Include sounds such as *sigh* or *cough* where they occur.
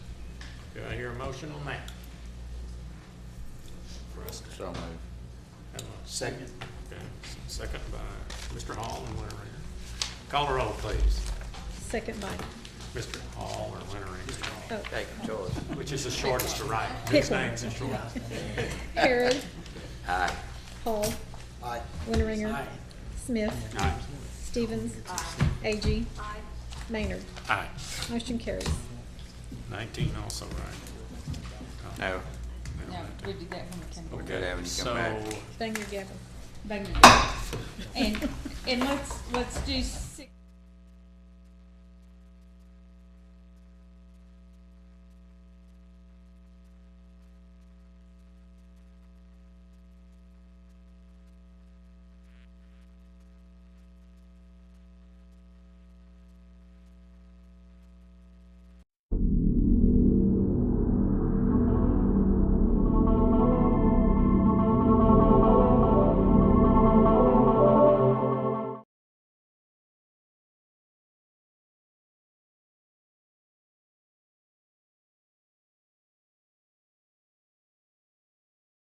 Do I hear a motion on that? Russ, So moved. have a second? Okay, second by Mr. Hall and Winteringer. Call the roll, please. Second by oh, Mr. Hall or Winteringer, Take a choice. which is the shortest to *laughs* write. His Pickle. name's the shortest. Harrod, Aye. Hall, Aye. Winteringer, Aye. Smith, Aye. Stevens, Ag, Maynard. Aye. Motion carries. Nineteen also, right? No, No, we did that when we came we back. gotta have him come back. So, Thank you, Gavin. Back in the day. And, and let's, let's do s-